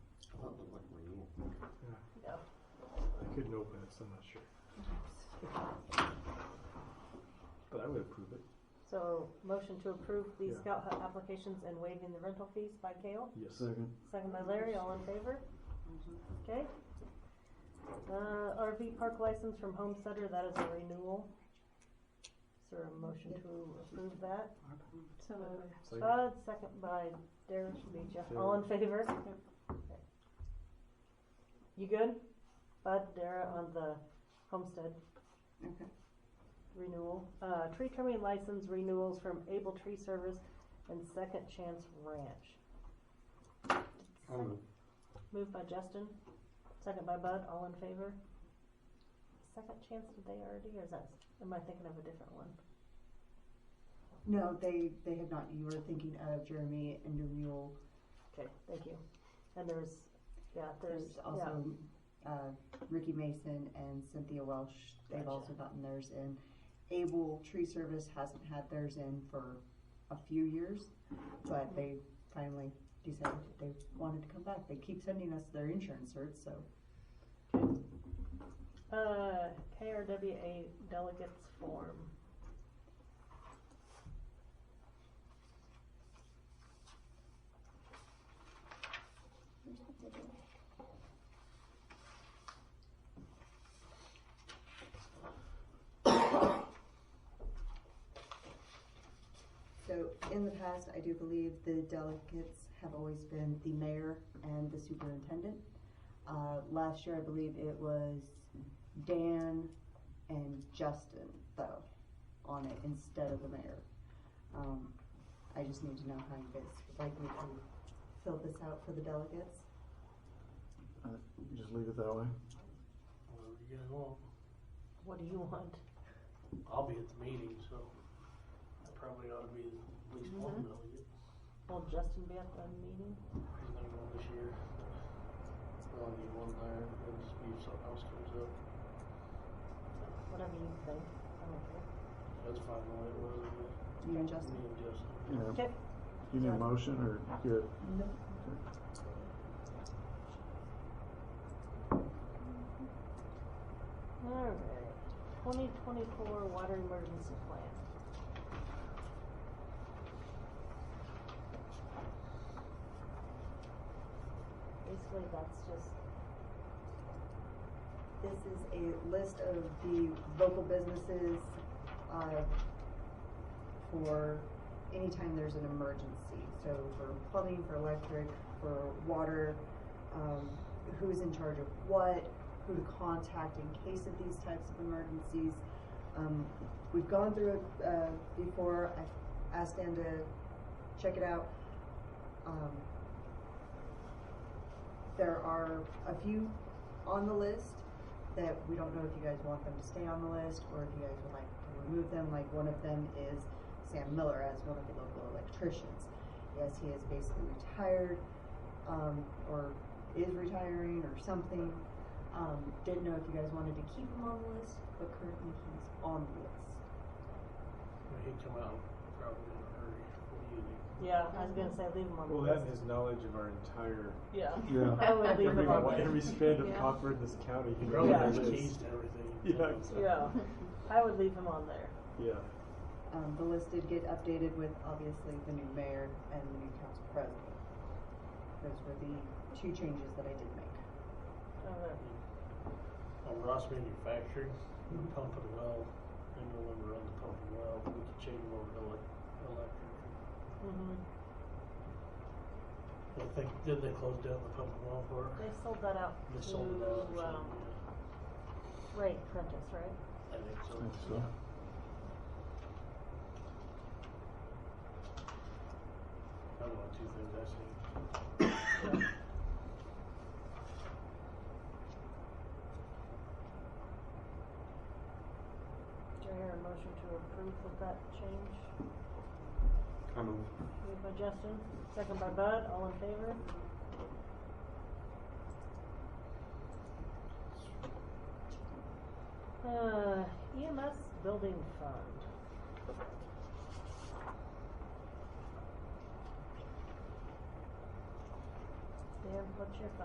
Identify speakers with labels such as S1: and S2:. S1: I'm not sure. But I would approve it,
S2: So, motion to approve the
S1: Yeah.
S2: Scout Hut applications and waiving the rental fees by Kale,
S1: yes. Second.
S2: second by Larry, all in favor? Okay. Uh, RV park license from Homesteader, that is a renewal. Is there a motion to approve that?
S3: So moved.
S1: Second.
S2: Todd, Uh, second by Derek Beecher. All in favor? You good? Bud, Dara on the homestead
S3: Okay.
S2: renewal. Uh, tree trimming license renewals from Able Tree Service and Second Chance Ranch.
S1: I'll move.
S2: Moved by Justin, second by Bud, all in favor? Second Chance, did they already, or is that, am I thinking of a different one?
S3: No, they, they had not, you were thinking of Jeremy and your mule.
S2: Okay, thank you. And there's, yeah, there's,
S3: There's
S2: yeah,
S3: also, uh, Ricky Mason and Cynthia Welsh, they've
S2: Gotcha.
S3: also gotten theirs in. Able Tree Service hasn't had theirs in for a few years, but they finally decided that they wanted to come back. They keep sending us their insurance certs, so.
S2: uh, KRWA delegates form.
S3: So in the past, I do believe the delegates have always been the mayor and the superintendent. Uh, last year, I believe it was Dan and Justin though, on it instead of the mayor. Um, I just need to know how you guys would like me to fill this out for the delegates.
S4: Just leave it that way.
S5: Whatever you guys want.
S2: What do you want?
S5: I'll be at the meeting, so I probably ought to be at least one delegate.
S2: Will Justin be at the meeting?
S5: He's not going this year. I'll need one there, and just be if something else comes up.
S2: Whatever you think. I don't
S5: That's fine, the way it was. I guess.
S3: You and
S5: Me
S3: Justin?
S5: and Justin.
S4: Yeah.
S2: care. Okay,
S4: You need a motion or good?
S2: alright. Twenty twenty-four water emergency plan. Basically, that's just,
S3: This is a list of the local businesses, uh, for anytime there's an emergency. So for plumbing, for electric, for water, um, who's in charge of what, who to contact in case of these types of emergencies. Um, we've gone through it, uh, before. I asked Dan to check it out. Um, there are a few on the list that we don't know if you guys want them to stay on the list or if you guys would like to remove them. Like one of them is Sam Miller as one of the local electricians. Yes, he is basically retired, um, or is retiring or something. Um, didn't know if you guys wanted to keep him on the list, but currently he's on the list.
S5: He'd come out probably in a hurry. What do you think?
S2: yeah, I was gonna say leave them on the
S1: Well,
S2: list.
S1: that is knowledge of our entire,
S2: Yeah.
S4: Yeah.
S2: I would leave
S1: every,
S2: them on the
S1: every
S2: list.
S1: strand of
S6: Yeah.
S1: copper in this county.
S5: He
S1: he
S5: probably
S1: knows
S5: has
S1: it
S5: keys
S1: is.
S5: to everything.
S1: Yeah, exactly.
S2: Yeah, I would leave him on there.
S1: Yeah,
S3: Um, the list did get updated with obviously the new mayor and the new council president. Those were the two changes that I did make.
S2: Alright.
S5: On Ross Manufacturing, the pump and well, they no longer run the pump and well. We could change them over to like electric.
S2: Mhm.
S5: I think, did they close down the pump and well for it?
S2: They sold that out
S5: They
S2: to,
S5: sold it out or
S2: um,
S5: something.
S2: Ray Prentice, right?
S5: yeah. I think so.
S4: Think so.
S5: I don't know, two things I see.
S2: Do I hear a motion to approve of that change?
S1: I move.
S2: Moved by Justin, second by Bud, all in favor? Uh, EMS Building Fund. Dan, what's your thought?